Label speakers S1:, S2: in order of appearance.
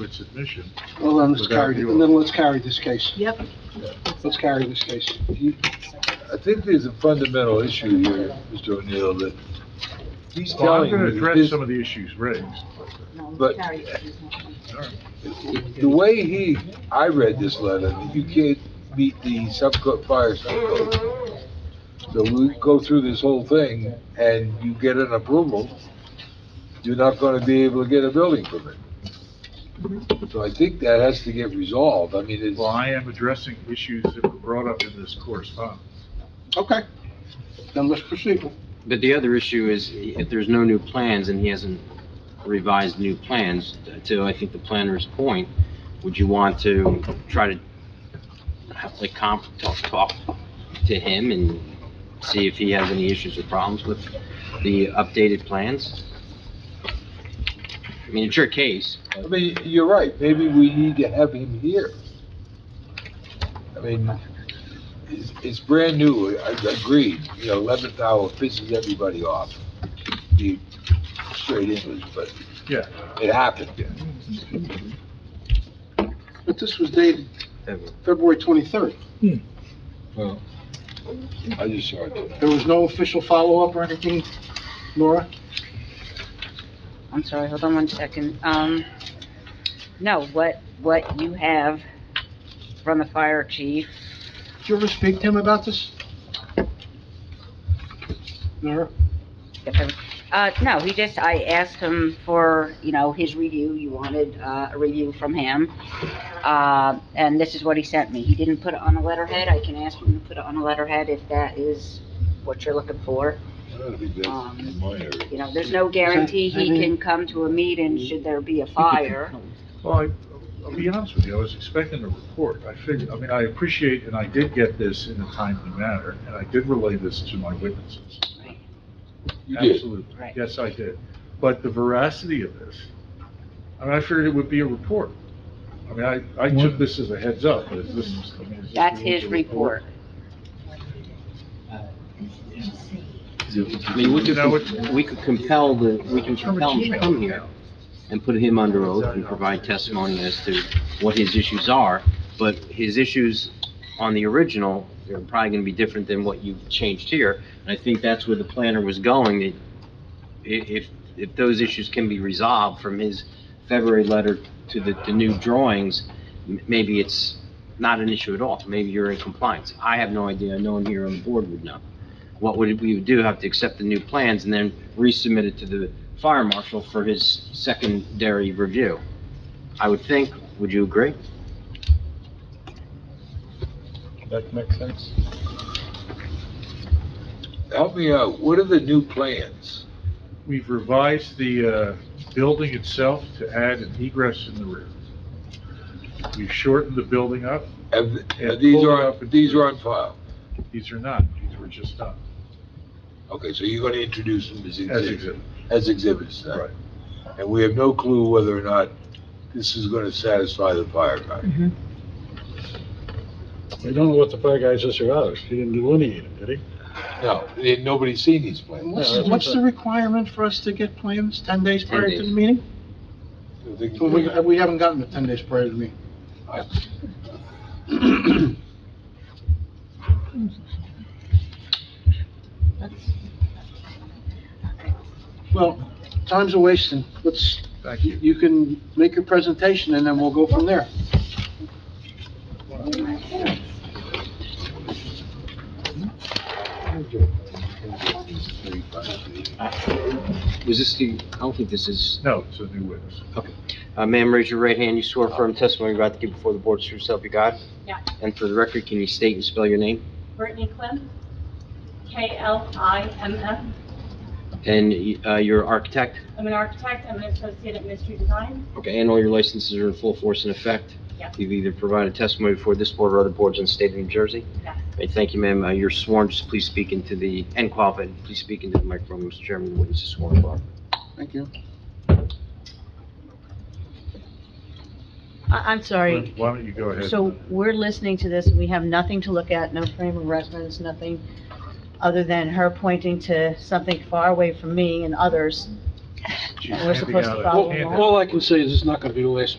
S1: to its admission.
S2: Well, then let's
S1: Without
S2: carry,
S1: you.
S2: then let's carry this case.
S3: Yep.
S2: Let's carry this case. You-
S4: I think there's a fundamental issue here, Mr. O'Neill, that he's
S1: Well, I'm
S4: telling
S1: gonna
S4: you that
S1: address
S4: this-
S1: some of the issues raised.
S4: But- the way he, I read this letter, that you can't meet the subco, fire subcode. So we go through this whole thing and you get an approval, you're not gonna be able to get a building permit. So I think that has to get resolved. I mean, it's,
S1: Well, I am addressing issues that were brought up in this correspondence.
S2: Okay, then let's proceed.
S5: But the other issue is, if there's no new plans and he hasn't revised new plans, to, I think, the planner's point, would you want to try to have, like, comp, talk, talk to him and see if he has any issues or problems with the updated plans? I mean, it's your case.
S4: I mean, you're right, maybe we need to have him here. I mean, it's, it's brand new, I I agree, you know, eleventh hour pisses everybody off, the straight English, but
S1: Yeah.
S4: it happened.
S2: But this was dated February 23rd.
S4: I just saw it today.
S2: There was no official follow-up or anything, Nora?
S6: I'm sorry, hold on one second. Um, no, what, what you have from the fire chief,
S2: Did you ever speak to him about this? Nora?
S6: uh, no, he just, I asked him for, you know, his review. You wanted, uh, a review from him. Uh, and this is what he sent me. He didn't put it on a letterhead. I can ask him to put it on a letterhead if that is what you're looking for. Um,
S4: That'd be good
S6: Uh,
S4: in my area.
S6: You know, there's no guarantee he can come to a meeting should there be a fire.
S1: Well, I- I'll be honest with you, I was expecting a report. I figured, I mean, I appreciate, and I did get this in a timely manner, and I did relay this to my witnesses.
S4: You did,
S1: Absolutely.
S6: Right.
S1: Yes, I did. But the veracity of this, I mean, I figured it would be a report. I mean, I, I took this as a heads up, but is this, I mean, is this
S6: That's
S1: really
S6: his
S1: a
S6: report.
S5: I mean, we
S1: You know,
S5: could,
S1: it's-
S5: we could compel the, we can
S1: From a
S5: compel him to
S1: Gmail
S5: come here
S1: account.
S5: and put him under oath and provide testimony as to what his issues are, but his issues on the original are probably gonna be different than what you've changed here. And I think that's where the planner was going, that i- if, if those issues can be resolved from his February letter to the, the new drawings, m- maybe it's not an issue at all, maybe you're in compliance. I have no idea, no one here on the board would know what would we would do, have to accept the new plans and then resubmit it to the fire marshal for his secondary review. I would think, would you agree?
S4: that makes sense. Help me out, what are the new plans?
S1: We've revised the, uh, building itself to add an egress in the rear. We've shortened the building up.
S4: Have,
S1: Yeah,
S4: these
S1: pull it
S4: are,
S1: up and-
S4: these are on file,
S1: These are not, these were just done
S4: okay, so you're gonna introduce them as
S1: as
S4: exhibits?
S1: exhibit.
S4: as exhibits. then.
S1: Right.
S4: And we have no clue whether or not this is going to satisfy the fire guy.
S7: We don't know what the fire guy's is or others. He didn't delineate them, did he?
S4: No, they- eh, nobody's seen these plans.
S2: What's,
S7: that's
S2: what's
S7: what-
S2: the requirement for us to get plans 10 days
S5: 10
S2: prior to the
S5: days.
S2: meeting?
S4: They can-
S2: We, we haven't gotten it 10 days prior to the meeting. Well, time's a wasting. Let's,
S1: Thank you.
S2: you can make your presentation and then we'll go from there.
S5: Was this the, I don't think this is,
S1: No, it's a new witness.
S5: uh, ma'am, raise your right hand, you swear affirm testimony you're about to give before the board, true self you got?
S8: Yeah.
S5: And for the record, can you state and spell your name?
S8: Brittany Klim, K-L-I-M-F.
S5: And, uh, you're an architect,
S8: I'm an architect, I'm an associate at Mystery Design.
S5: okay, and all your licenses are in full force and effect?
S8: Yeah.
S5: You've either provided testimony before this board or other boards in the state of New Jersey?
S8: Yeah.
S5: Okay, thank you, ma'am, Uh, you're sworn, just please speak into the, and qualified, please speak into the microphone, Mr. Chairman, the witness is sworn and qualified.
S2: Thank you.
S3: I, I'm sorry.
S1: Why don't you go ahead?
S3: So we're listening to this, and we have nothing to look at, no frame of reference, nothing other than her pointing to something far away from me and others.
S1: She's
S3: we're
S1: handing
S3: supposed to
S1: out a
S3: follow
S1: handout.
S3: along?
S2: All I can say is it's not gonna be the last meeting